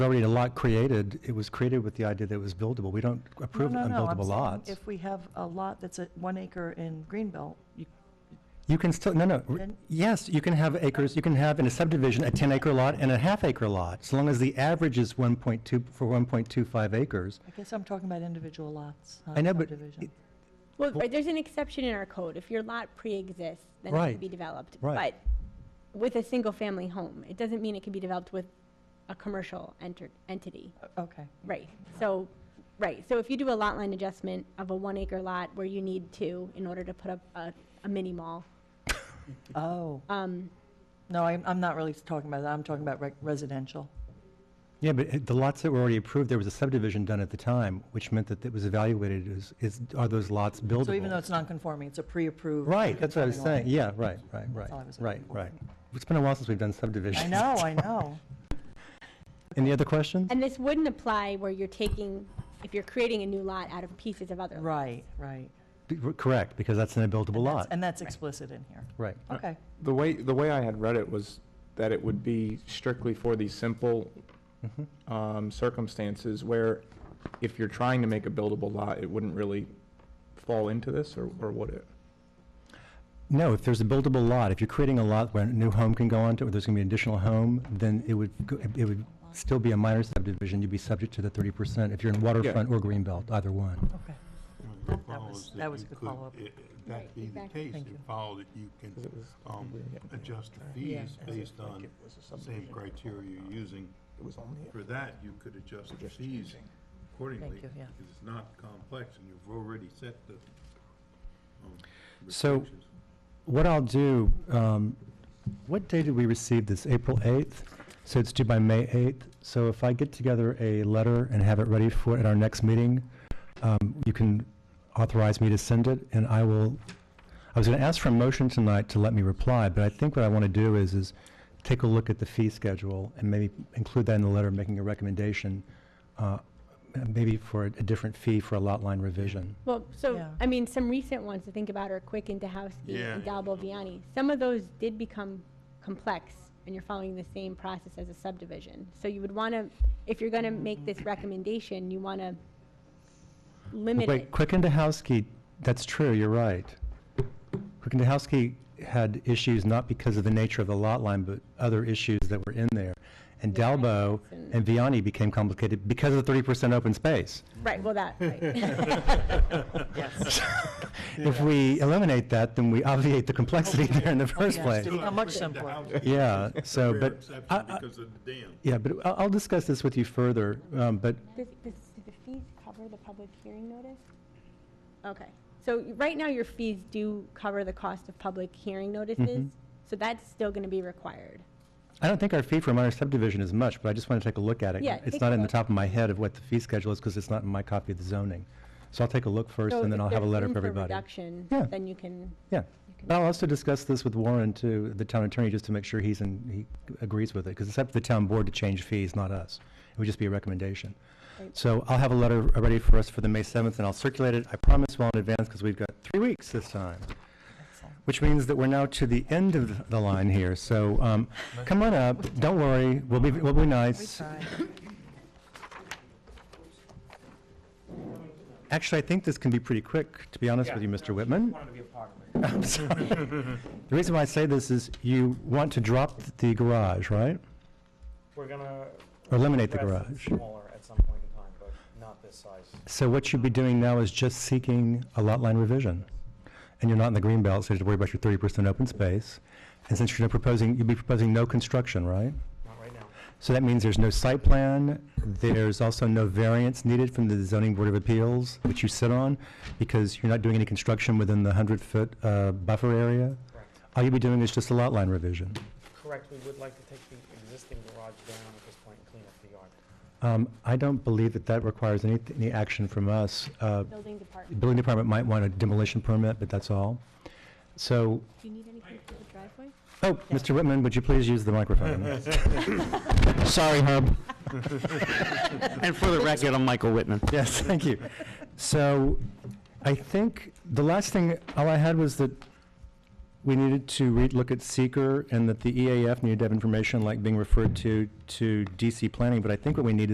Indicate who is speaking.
Speaker 1: already a lot created, it was created with the idea that it was buildable. We don't
Speaker 2: No,
Speaker 1: approve
Speaker 2: no, no. I'm
Speaker 1: unbuildable
Speaker 2: saying
Speaker 1: lots.
Speaker 2: If we have a lot that's at one acre in Greenbelt, you,
Speaker 1: You can still, no, no, r-
Speaker 2: Then-
Speaker 1: yes, you can have acres, you can have in a subdivision a 10-acre lot and a half-acre lot, as long as the average is 1.2, for 1.25 acres.
Speaker 2: I guess I'm talking about individual lots, not
Speaker 1: I know, but
Speaker 2: subdivision.
Speaker 1: it-
Speaker 3: Well, right, there's an exception in our code. If your lot pre-exists, then it
Speaker 1: Right,
Speaker 3: can be developed.
Speaker 1: right.
Speaker 3: But with a single-family home, it doesn't mean it can be developed with a commercial enter, entity.
Speaker 2: Okay,
Speaker 3: Right, so, right, so if you do a lot line adjustment of a one-acre lot where you need two in order to put up a, a mini mall,
Speaker 2: oh,
Speaker 3: um,
Speaker 2: no, I'm, I'm not really talking about that, I'm talking about rec- residential.
Speaker 1: Yeah, but it- the lots that were already approved, there was a subdivision done at the time, which meant that it was evaluated as, is, are those lots buildable?
Speaker 2: So even though it's non-conforming, it's a pre-approved.
Speaker 1: Right, that's what I was saying,
Speaker 2: non-conforming
Speaker 1: yeah, right, right, right,
Speaker 2: all I was
Speaker 1: right,
Speaker 2: looking for.
Speaker 1: right. It's been a while since we've done
Speaker 2: lot.
Speaker 1: subdivisions.
Speaker 2: I know, I know.
Speaker 1: Any other questions?
Speaker 3: and this wouldn't apply where you're taking, if you're creating a new lot out of pieces of other. lots.
Speaker 2: Right, right.
Speaker 1: Be- Correct, because that's an buildable
Speaker 2: And that's-
Speaker 1: lot,
Speaker 2: And that's explicit in here.
Speaker 1: right.
Speaker 2: Okay,
Speaker 4: The way, the way I had read it was that it would be strictly for these simple
Speaker 1: Mhm.
Speaker 4: um, circumstances where if you're trying to make a buildable lot, it wouldn't really fall into this, or, or would it?
Speaker 1: No, if there's a buildable lot, if you're creating a lot where a new home can go onto, or there's going to be an additional home, then it would, go- it would still be a minor subdivision, you'd be subject to the 30% if you're in waterfront or greenbelt, either one.
Speaker 2: okay.
Speaker 5: The
Speaker 2: That
Speaker 5: problem
Speaker 2: was-
Speaker 5: is
Speaker 2: that was
Speaker 5: you
Speaker 2: a good
Speaker 5: could-
Speaker 2: follow-up.
Speaker 5: i- i-
Speaker 3: Right,
Speaker 5: That being the
Speaker 3: exactly.
Speaker 5: case,
Speaker 2: Thank you.
Speaker 5: it followed that you can
Speaker 4: Because it was-
Speaker 5: um,
Speaker 4: we were getting
Speaker 5: adjust the
Speaker 2: Yeah. Uh-huh.
Speaker 5: fees based on the same criteria you're using.
Speaker 4: It was only
Speaker 5: For that, you could adjust the fees accordingly.
Speaker 2: Thank you, yeah.
Speaker 5: Because it's not complex and you've already set the um,
Speaker 1: So-
Speaker 5: restrictions.
Speaker 1: What I'll do, um, what day did we receive this? April 8th? So it's due by May 8th. So if I get together a letter and have it ready for, at our next meeting, um, you can authorize me to send it, and I will, I was going to ask for a motion tonight to let me reply, but I think what I want to do is, is take a look at the fee schedule and maybe include that in the letter, making a recommendation, uh, maybe for a a different fee for a lot line revision.
Speaker 3: Well, so,
Speaker 2: Yeah.
Speaker 3: I mean, some recent ones to think about are Quick and Dehowski
Speaker 5: Yeah,
Speaker 3: and
Speaker 5: yeah.
Speaker 3: Dalbo Viani. Some of those did become complex, and you're following the same process as a subdivision. So you would want to, if you're going to make this recommendation, you want to limit
Speaker 1: Wait,
Speaker 3: it.
Speaker 1: Quick and Dehowski, that's true, you're right. Quick and Dehowski had issues not because of the nature of the lot line, but other issues that were in there. And
Speaker 3: Yeah,
Speaker 1: Dalbo
Speaker 3: that's an-
Speaker 1: and Vianney became complicated because of the 30% open space.
Speaker 3: Right, well, that, right.
Speaker 2: Yes.
Speaker 1: If we eliminate that, then we obviate the complexity there in the first
Speaker 2: yeah.
Speaker 1: place.
Speaker 2: Still How much simpler.
Speaker 1: Yeah, so,
Speaker 5: Rare
Speaker 1: but,
Speaker 5: exception
Speaker 1: I- I-
Speaker 5: because of the dam.
Speaker 1: yeah, but I'll I'll discuss this with you further, um, but
Speaker 3: Does, does, do the fees cover the public hearing notice? Okay, so y- right now, your fees do cover the cost of public hearing
Speaker 1: Mm-hmm.
Speaker 3: notices, so that's still going to be required.
Speaker 1: I don't think our fee for a minor subdivision is much, but I just want to take a look at it.
Speaker 3: Yeah,
Speaker 1: It's
Speaker 3: take
Speaker 1: not
Speaker 3: a
Speaker 1: in the
Speaker 3: look.
Speaker 1: top of my head of what the fee schedule is, because it's not in my copy of the zoning. So I'll take a look first, and then I'll have a letter for everybody.
Speaker 3: If there's room for
Speaker 1: Yeah.
Speaker 3: reduction, then you can
Speaker 1: Yeah.
Speaker 3: You can-
Speaker 1: But I'll also discuss this with Warren, too, the town attorney, just to make sure he's in, he agrees with it, because it's up to the town board to change fees, not us. It would just be a recommendation.
Speaker 3: Right.
Speaker 1: So I'll have a letter ready for us for the May 7th, and I'll circulate it, I promise, well in advance, because we've got three weeks this time, which means that we're now to the end of the line here. So um, come on up, don't worry, we'll be, we'll be
Speaker 2: We
Speaker 1: nice.
Speaker 2: tried.
Speaker 1: Actually, I think this can be pretty quick, to be honest with you, Mr. Whitman.
Speaker 6: wanted to be a part of it.
Speaker 1: I'm sorry. The reason why I say this is you want to drop the garage, right?
Speaker 6: We're gonna.
Speaker 1: Or eliminate the
Speaker 6: address it
Speaker 1: garage.
Speaker 6: Smaller at some point in time, but not this size.
Speaker 1: So what you'd be doing now is just seeking a lot line revision. And you're not in the green belt, so you have to worry about your thirty percent open space. And since you're not proposing, you'd be proposing no construction, right?
Speaker 6: Not right now.
Speaker 1: So that means there's no site plan, there's also no variance needed from the zoning board of appeals, which you sit on, because you're not doing any construction within the hundred-foot, uh, buffer area.
Speaker 6: Correct.
Speaker 1: All you'd be doing is just a lot line revision.
Speaker 6: Correct. We would like to take the existing garage down at this point and clean up the yard.
Speaker 1: Um, I don't believe that that requires any, any action from us. Uh,
Speaker 3: building department.
Speaker 1: the Building department might want a demolition permit, but that's all. So,
Speaker 3: Do you need anything for the driveway?
Speaker 1: oh, Mr. Whitman, would you please use the microphone? Sorry, Herb.
Speaker 7: And for the record, I'm Michael Whitman.
Speaker 1: Yes, thank you. So I think the last thing, all I had was that we needed to re, look at E seeker and that the EAF needed to have information like being referred to, to DC planning, but I think what we need is